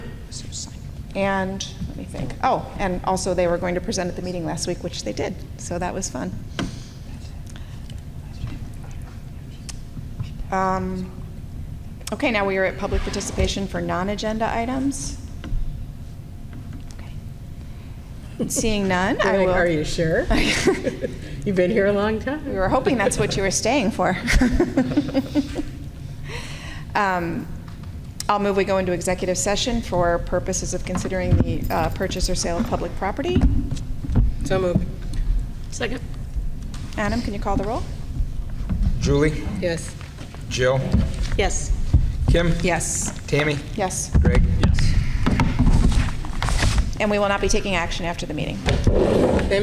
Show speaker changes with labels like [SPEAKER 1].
[SPEAKER 1] And, let me think, oh, and also they were going to present at the meeting last week, which they did, so that was fun. Um, Okay, now we are at public participation for non-agenda items. Seeing none, I
[SPEAKER 2] You're like, Are
[SPEAKER 1] will,
[SPEAKER 2] you sure? You've been here a long
[SPEAKER 1] we
[SPEAKER 2] time.
[SPEAKER 1] were hoping that's what you were staying for. Um, I'll move we go into executive session for purposes of considering the uh, purchase or sale of public property.
[SPEAKER 2] So moved. Second?
[SPEAKER 1] Adam, can you call the roll?
[SPEAKER 3] Julie,
[SPEAKER 2] Yes.
[SPEAKER 3] Jill,
[SPEAKER 2] Yes.
[SPEAKER 3] Kim,
[SPEAKER 2] Yes.
[SPEAKER 3] Tammy,
[SPEAKER 1] Yes,
[SPEAKER 3] Greg.
[SPEAKER 1] and we will not be taking action after the meeting.